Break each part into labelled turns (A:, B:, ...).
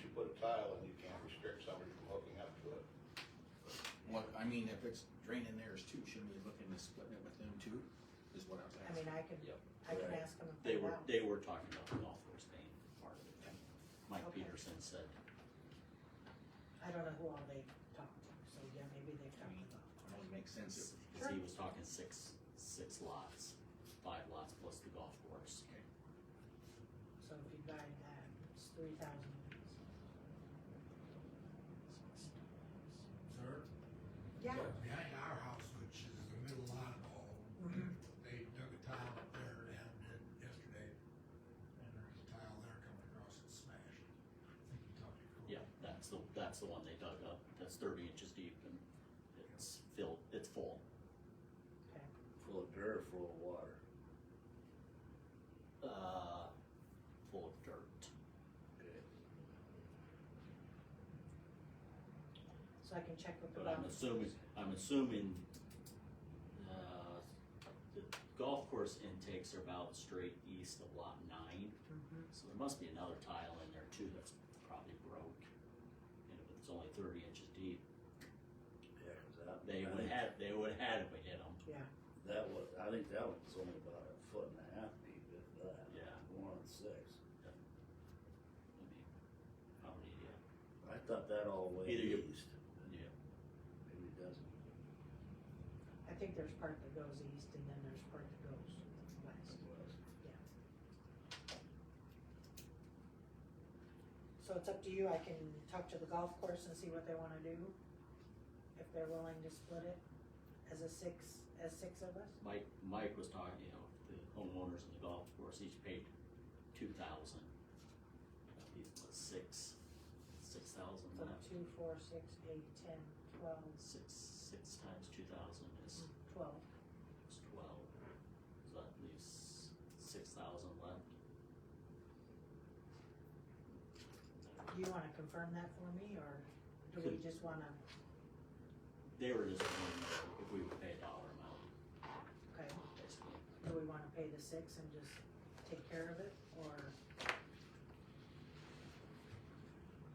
A: you put a tile in, you can't restrict somebody from hooking up to it.
B: What, I mean, if it's draining theirs too, shouldn't we look into splitting it with them too, is what I was
C: I mean,
B: asking.
C: I can,
D: Yep.
C: I can
E: Right.
C: ask them if
D: They
C: they
D: were,
C: want.
D: they were talking about the golf course being part of it. Mike
C: Okay.
D: Peterson said,
C: I don't know who all they talked to, so yeah, maybe they've talked about.
B: It only makes sense if,
D: cause he was talking six, six lots, five lots plus the golf course.
C: So if you buy that, it's three thousand.
F: Sir,
C: Yeah.
F: behind our house, which is the middle lot of all, they dug a tile up there and had it yesterday. And there's a tile there coming across and smashed. I think you talked to Cole.
D: Yeah, that's the, that's the one they dug up, that's thirty inches deep and it's filled, it's full.
C: Okay,
E: Full of dirt, or full of water.
D: uh, full of dirt.
C: so I can check with the.
D: But I'm
C: box.
D: assuming, I'm assuming, uh, the golf course intakes are about straight east of lot nine.
C: Mhm.
D: So there must be another tile in there too that's probably broke. And if it's only thirty inches deep,
E: Yeah, 'cause that.
D: they
E: I
D: would
E: think
D: have, they would have had if we hit them.
C: Yeah,
E: That was, I think that was only about a foot and a half deep, if that.
D: Yeah.
E: One on six.
D: I mean, How many, yeah,
E: I thought that all the way
D: Either you-
E: east.
D: yeah,
E: Maybe it doesn't.
C: I think there's part that goes east and then there's part that goes west. So it's up to you, I can talk to the golf course and see what they wanna do, if they're willing to split it as a six, as six of us.
D: Mike, Mike was talking, you know, the homeowners and the golf course each paid two thousand. Six, six thousand.
C: So two, four, six, eight, ten, twelve,
D: Six, six times two thousand is
C: twelve.
D: is twelve, so that leaves six thousand left.
C: Do you wanna confirm that for me, or do we just wanna,
D: They were just wondering if we would pay a dollar amount,
C: okay,
D: basically.
C: do we wanna pay the six and just take care of it, or,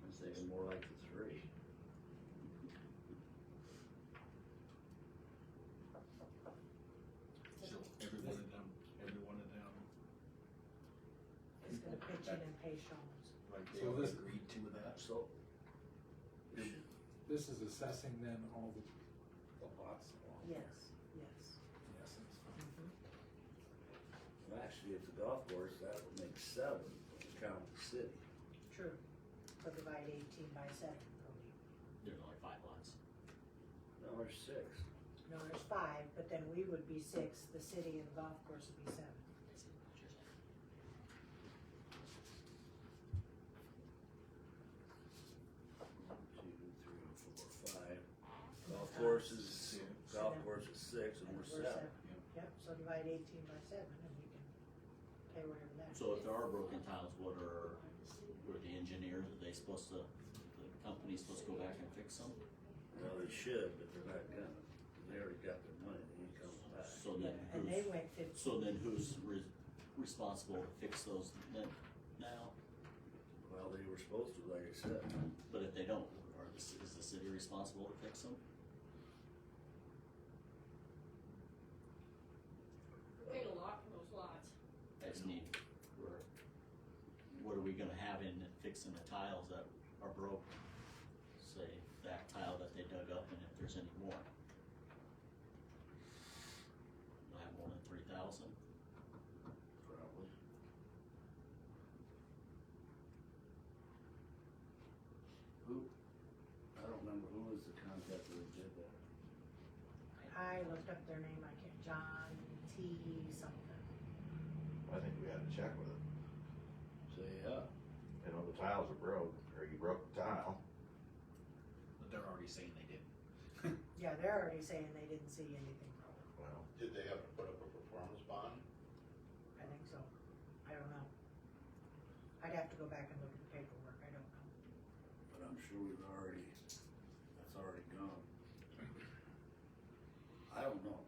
E: I'm thinking more like the three.
B: so every one of them, every one of them,
C: is gonna pitch in and pay Sean's?
B: like they
G: So
B: all
G: this-
B: agreed to that?
E: So.
G: Yeah. This is assessing then all the, the lots along.
C: Yes, yes.
G: In essence.
C: Mhm.
E: Well, Actually, at the golf course, that would make seven, if you count the city.
C: True, so divide eighteen by seven, Cody.
D: There's only five lots.
E: No, there's six.
C: No, there's five, but then we would be six, the city and the golf course would be seven.
E: One, two, three, four, five. Golf course is six, golf course is six, and we're seven.
C: Yep, so divide eighteen by seven, and we can pay whatever that is.
D: So if there are broken tiles, what are, were the engineers, are they supposed to, the company's supposed to go back and fix them?
E: Well, they should, but they're not gonna. They already got their money, they ain't coming back.
D: So then
C: And they
D: who's,
C: went fifteen.
D: so then who's re- responsible to fix those then now?
E: Well, they were supposed to, like I said.
D: But if they don't, are the, ci- is the city responsible to fix them?
H: We paid a lot for those lots.
D: I just need, we're, what are we gonna have in fixing the tiles that are broken? Say, that tile that they dug up and if there's any more. Do I have more than three thousand?
E: Probably. Who, I don't remember who was the contractor that did that.
C: I looked up their name, I can't, John T something.
I: I think we had to check with it.
E: So, yeah,
I: You know, the tiles are broke, or you broke the tile.
B: But they're already saying they did.
C: Yeah, they're already saying they didn't see anything wrong.
I: Well,
A: Did they have to put up a performance bond?
C: I think so. I don't know. I'd have to go back and look at the paperwork, I don't know.
E: but I'm sure we've already, that's already gone. I don't know.